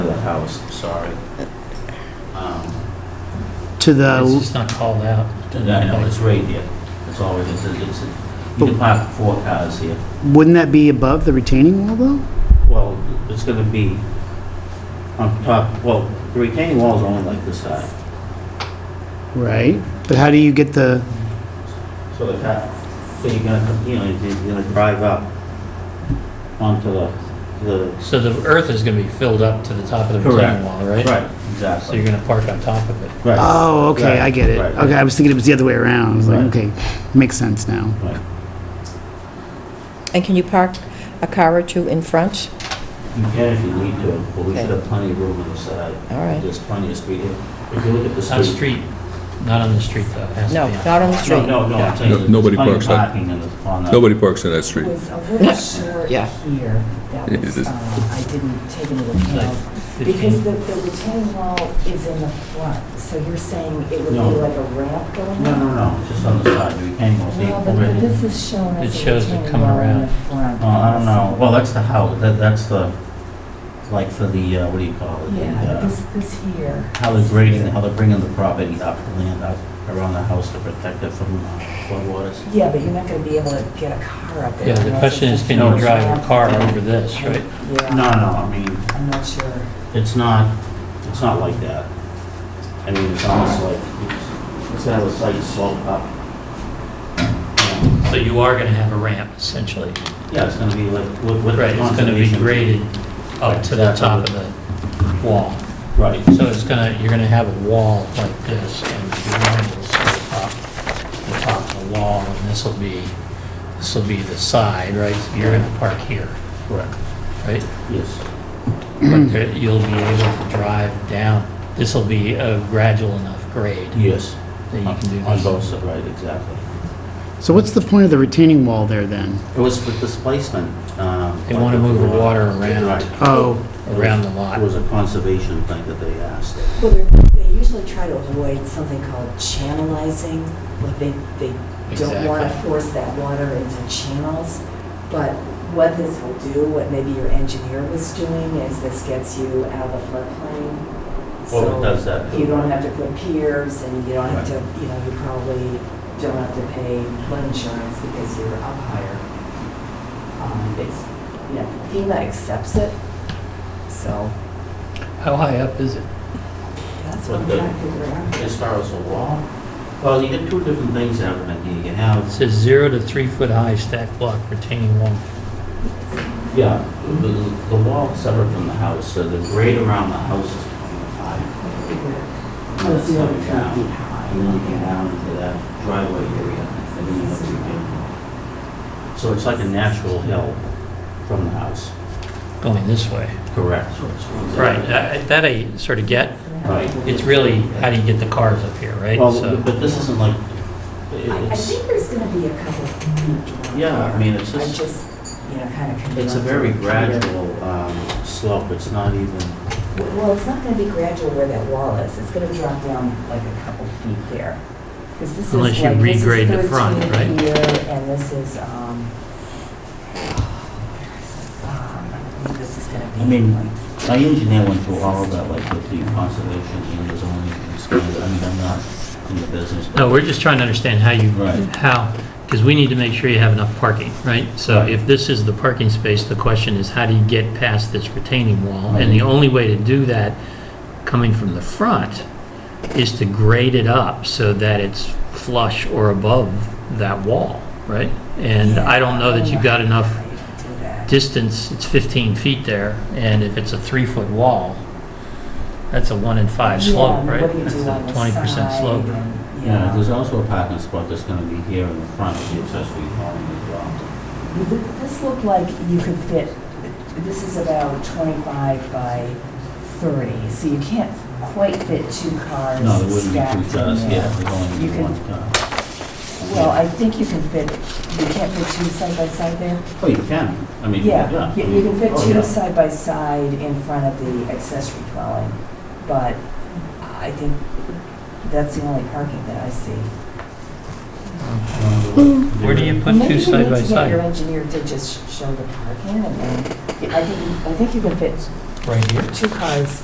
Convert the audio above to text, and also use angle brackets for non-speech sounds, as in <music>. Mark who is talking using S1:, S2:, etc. S1: house, sorry. Um,
S2: to
S3: It's
S2: the,
S3: just not called out.
S1: I know, it's right here, that's all it is, It's- it's, you can park four cars here.
S2: wouldn't that be above the retaining wall though?
S1: Well, it's gonna be on top, well, the retaining wall's only like this side,
S2: Right? But how do you get the,
S1: so the car, so you're gonna, come- you know, you're gonna drive up onto the, the.
S3: So the earth is going to be filled up to the top of the retaining wall,
S1: Right,
S3: right? So
S1: exactly.
S3: you're going to park on top of it.
S1: Right.
S2: oh, okay,
S1: Right,
S2: I get it.
S1: right.
S2: Okay, I was thinking it was the other way around. I was like,
S1: Right.
S2: okay, makes sense now.
S1: Right.
S4: And can you park a car or two in front?
S1: You can if you need to, but we
S4: Okay.
S1: should have plenty of room on the side.
S4: All right.
S1: There's plenty of street here. If you look at the
S3: It's on
S1: street.
S3: street, not on the street though. It has to
S4: No,
S3: be on-
S4: not on the street.
S1: No, no, no, I'm
S3: No,
S1: saying. there's
S5: nobody
S1: plenty of
S5: parks on-
S1: Parking in the, on the.
S5: Nobody parks on that street.
S6: was a little short
S4: Yeah.
S6: here. That
S5: It
S6: was,
S5: is.
S6: uh, I didn't take into
S3: It's like
S6: account.
S3: 15.
S6: Because the, the retaining wall is in the front, so you're saying it would be
S1: No.
S6: like a ramp going
S1: No,
S6: up?
S1: no, no, it's just on the side, you can't even see
S6: No, but
S1: already.
S6: this is shown
S3: It
S6: as a
S3: shows it
S6: retaining
S3: coming
S6: wall in
S3: around.
S6: the front.
S1: Oh, I don't know, well, that's the house, that, that's the, like for the, uh, what do you call it? The,
S6: Yeah,
S1: uh,
S6: this, this here.
S1: How they're grading, how they're bringing the property up, the land up around the house to protect it from uh, floodwaters.
S6: Yeah, but you're not gonna be able to get a car up there.
S3: Yeah, the
S6: unless
S3: question
S6: it's
S3: is,
S6: a
S3: can you
S6: huge
S3: drive your
S6: ramp.
S3: car over this, right?
S1: No, no,
S6: Yeah,
S1: I mean,
S6: I'm not sure.
S1: it's not, it's not like that. I mean, it's almost like, it's- it's kind of a slight slope up.
S3: So you are going to have a ramp essentially.
S1: Yeah, it's gonna be like, what, what.
S3: Right, it's going to be
S1: conservation-
S3: graded up to the top of the wall.
S1: Right,
S3: So it's going to, you're going to have a wall like this and your line will sort of top, the top of the wall and this will be, this will be the side, right? So You're going to park here,
S1: correct, <clears throat>
S3: right?
S1: yes.
S3: But there- you'll be able to drive down. This will be a gradual enough grade
S1: Yes.
S3: that you can do this.
S1: On both sides, right, exactly.
S2: So what's the point of the retaining wall there then?
S1: It was for displacement. um,
S3: They wanna move the water around.
S1: Right.
S2: Oh,
S3: Around the lot.
S1: It was a conservation thing that they asked.
S6: Well, they're- they usually try to avoid something called channelizing, like they, they don't want to
S3: Exactly.
S6: force that water into channels. But what this will do, what maybe your engineer was doing, is this gets you out of the floodplain.
S1: Well, it
S6: So
S1: does that.
S6: you don't have to put piers and you don't have to, you know, you probably don't have to pay flood insurance because you're up higher. Um, It's, you know, FEMA accepts it, so
S3: How high up is it?
S6: that's
S1: But
S6: what I'm
S1: the-
S6: trying to figure out.
S1: As far as the wall, well, you get two different things happening here. You can have,
S3: It says zero to three foot high stack block retaining wall.
S1: yeah, the, the wall separate from the house, so the grade around the house is five.
S6: Oh, it's zero to three
S1: Down.
S6: feet high.
S1: And then you get down into that driveway area, and then you have to get. So it's like a natural hill from the house.
S3: going this way.
S1: Correct.
S3: Right, that that I sort of get.
S1: Right.
S3: It's really, how do you get the cars up here, right?
S1: Well,
S3: So-
S1: but this isn't like,
S6: I I
S1: it's,
S6: think there's going to be a couple of feet.
S1: yeah, I mean, it's
S6: I
S1: just,
S6: just, you know, kind of.
S1: it's a very gradual um, slope, it's not even,
S6: Well, it's not going to be gradual where that wall is. It's going to drop down like a couple feet there. 'Cause this is
S3: Unless you
S6: like- this is
S3: regrade the front,
S6: 13
S3: right?
S6: here, And this is, um, <sighs> um, this is going to be.
S1: I mean,
S6: like-
S1: my engineer went through all of that, like with the conservation and the zoning, and stuff. I mean, I'm not in the business.
S3: No, we're just trying to understand how you,
S1: Right.
S3: how, because we need to make sure you have enough parking, right? So if this is the parking space, the question is, how do you get past this retaining wall? And the
S1: Right.
S3: only way to do that, coming from the front, is to grade it up so that it's flush or above that wall, right? And I don't know that you've got enough
S6: Right, do that.
S3: distance, it's 15 feet there, and if it's a three-foot wall, that's a one in five
S6: Yeah,
S3: slope,
S6: and
S3: right?
S6: What do you
S3: That's
S6: do
S3: a
S6: on the
S3: 20%
S6: side
S3: slope.
S6: and-
S1: Yeah, there's also a parking spot that's gonna be here in the front of the accessory dwelling as well.
S6: Th- This looked like you could fit, this is about 25 by 30, so you can't quite fit two cars
S1: No, there wouldn't
S6: stacked
S1: be
S6: in
S1: two cars, yeah,
S6: there.
S1: there'd only
S6: You
S1: be
S6: could-
S1: one car.
S6: Well, I think you can fit, you can't fit two side by side there?
S1: Oh, you can, I mean,
S6: Yeah,
S1: yeah.
S6: you you can fit
S1: Oh,
S6: two
S1: yeah.
S6: side by side in front of the accessory dwelling, but I think that's the only parking that I see.
S3: Where do you put
S6: Maybe
S3: two
S6: we
S3: side
S6: need
S3: by
S6: to get
S3: side?
S6: Your engineer to just show the parking, and then, I think, I think you can fit
S3: Right here?
S6: two cars